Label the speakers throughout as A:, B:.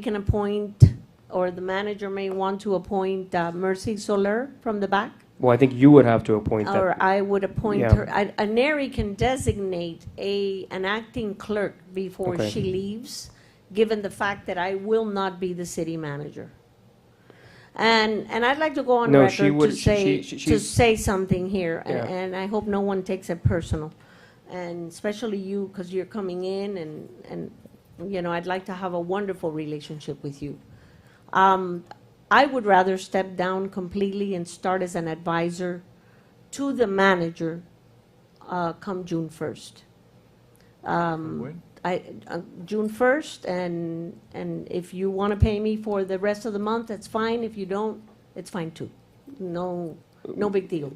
A: can appoint, or the manager may want to appoint uh, Mercy Soler from the back,
B: Well, I think you would have to appoint
A: or
B: that.
A: I would appoint
B: Yeah.
A: her. I- A nary can designate a, an acting clerk before
B: Okay.
A: she leaves, given the fact that I will not be the city manager. And, and I'd like to go on
B: No, she
A: record
B: would-
A: to
B: she-
A: say,
B: she- she-
A: to say something here, and
B: Yeah.
A: and I hope no one takes it personal. And especially you, because you're coming in, and, and, you know, I'd like to have a wonderful relationship with you. Um, I would rather step down completely and start as an advisor to the manager uh, come June 1st. Um,
C: When?
A: I, uh, June 1st, and, and if you want to pay me for the rest of the month, that's fine. If you don't, it's fine too. No, no big deal.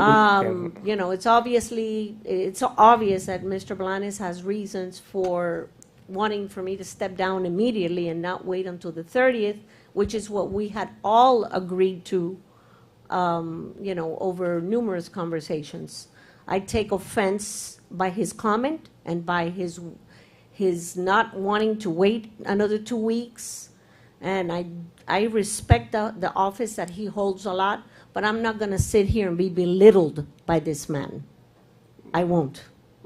A: Um, you know, it's obviously, it's obvious that Mr. Blanes has reasons for wanting for me to step down immediately and not wait until the thirtieth, which is what we had all agreed to, um, you know, over numerous conversations. I take offense by his comment and by his, his not wanting to wait another two weeks. And I, I respect the, the office that he holds a lot, but I'm not gonna sit here and be belittled by this man. I won't,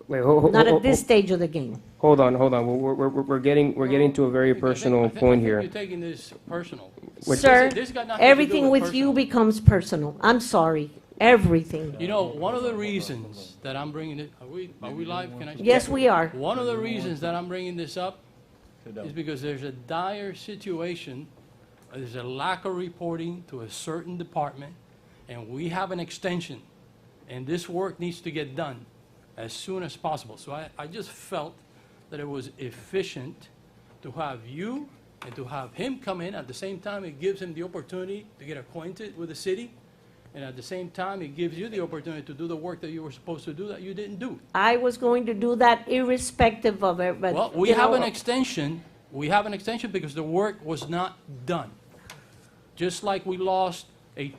A: not at this stage of the game.
B: Hold on, hold on. We're, we're, we're- we're getting, we're getting to a very
D: I think- I
B: personal
D: think- I
B: point
D: think
B: here.
D: You're taking this personal.
B: Which-
A: Sir,
D: This- this got nothing to do
A: everything
D: with
A: with you
D: personal.
A: becomes personal. I'm sorry, everything.
D: You know, one of the reasons that I'm bringing it, are we, are we live? Can I? speak?
A: Yes, we are.
D: One of the reasons that I'm bringing this up
C: Sit
D: is
C: down.
D: because there's a dire situation, uh, there's a lack of reporting to a certain department, and we have an extension, and this work needs to get done as soon as possible. So I, I just felt that it was efficient to have you and to have him come in. At the same time, it gives him the opportunity to get acquainted with the city, and at the same time, it gives you the opportunity to do the work that you were supposed to do that you didn't do.
A: I was going to do that irrespective of it, but.
D: Well, we
A: you
D: have
A: know,
D: an extension, we have an extension because the work was not done. Just like we lost a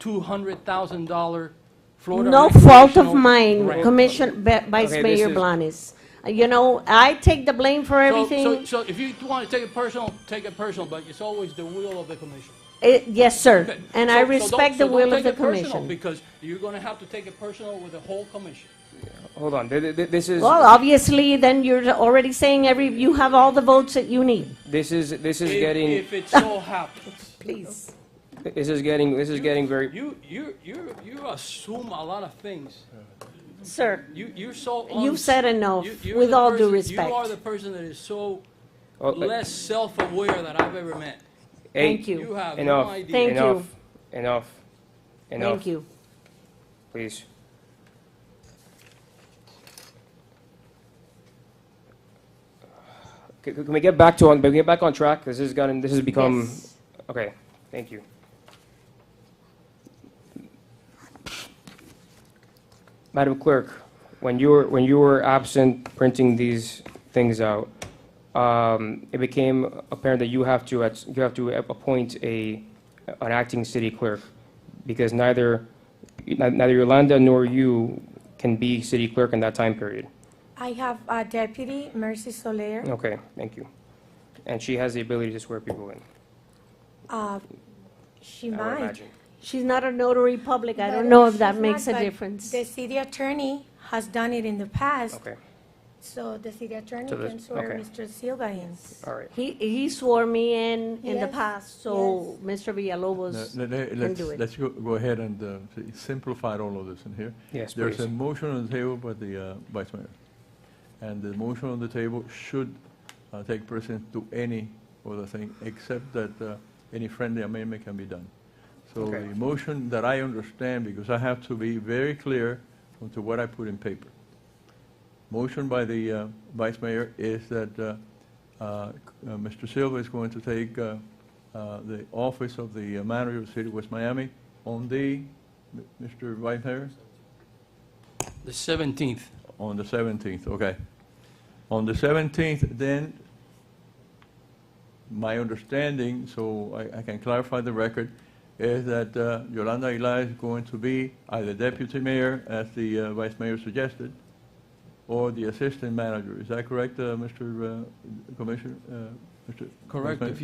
D: $200,000 Florida.
A: No fault of
D: recreational
A: mine,
D: grant.
A: Commission, Ba- Vice
B: Okay, this
A: Mayor
B: is-
A: Blanes. You know, I take the blame for
D: So- so-
A: everything.
D: So if you want to take it personal, take it personal, but it's always the will of the commission.
A: Eh, Yes, sir.
D: Okay,
A: And
D: so-
A: I
D: so don't-
A: respect the
D: so don't
A: will of
D: take
A: the
D: it personal,
A: commission.
D: Because you're going to have to take it personal with the whole commission.
B: Hold on. Th- th- This is,
A: Well, obviously, then you're already saying every, you have all the votes that you need.
B: this is, this is
D: If-
B: getting,
D: If it so happens.
A: Please.
B: this is getting, this is getting very,
D: You, you, you, you assume a lot of things.
A: Sir,
D: You, you're so.
A: You've
D: uns-
A: said enough,
D: you- you're
A: with
D: the
A: all due
D: person- You
A: respect.
D: are the person that is so
B: Oh, uh,
D: less self-aware that I've ever met.
B: hey,
A: thank you.
D: You have no
B: Enough.
D: idea.
A: Thank you.
B: Enough. Enough.
A: thank
B: Enough,
A: you.
B: please. C- Can we get back to, on? can we get back on track? This has gotten, this has become,
A: Yes.
B: Okay, thank you. Madam Clerk, when you were, when you were absent printing these things out, um, it became apparent that you have to, at- you have to appoint a, an acting city clerk, because neither, neither Yolanda nor you can be city clerk in that time period.
E: I have a deputy, Mercy Soler.
B: Okay, thank you. And she has the ability to swear people in,
E: Uh, She
B: I would
E: might.
B: imagine.
A: She's not a notary public. I
E: but
A: don't know if
E: she's
A: that
E: not,
A: makes a
E: but
A: difference.
E: The city attorney has done it in the past,
B: Okay,
E: so the city attorney
B: So the-
E: can swear
B: okay.
E: Mr. Silva in.
B: all right.
A: He, he swore me in in the
E: Yes,
A: past, so Mr. Villalobos,
C: No, no, no, Let's,
A: do it.
C: let's go, go ahead and uh, s- simplify all of this in here.
B: Yes,
C: There's
B: please.
C: a motion on the table by the uh, vice mayor. And the motion on the table should uh, take precedence to any other thing, except that uh, any friendly amendment can be done. So
B: Okay.
C: the motion that I understand, because I have to be very clear onto what I put in paper. Motion by the uh, vice mayor is that uh, uh, uh, Mr. Silva is going to take uh, uh, the office of the uh, manager of the city of West Miami on the, M- Mr. Vice Mayor?
D: The 17th.
C: On the 17th, okay. On the 17th, then, my understanding, so I- I can clarify the record, is that uh, Yolanda Aguilar is going to be either deputy mayor, as the uh, vice mayor suggested, or the assistant manager. Is that correct, uh, Mr. uh, Commissioner, uh, Mr.
D: Correct.
C: Vice Mayor?
D: If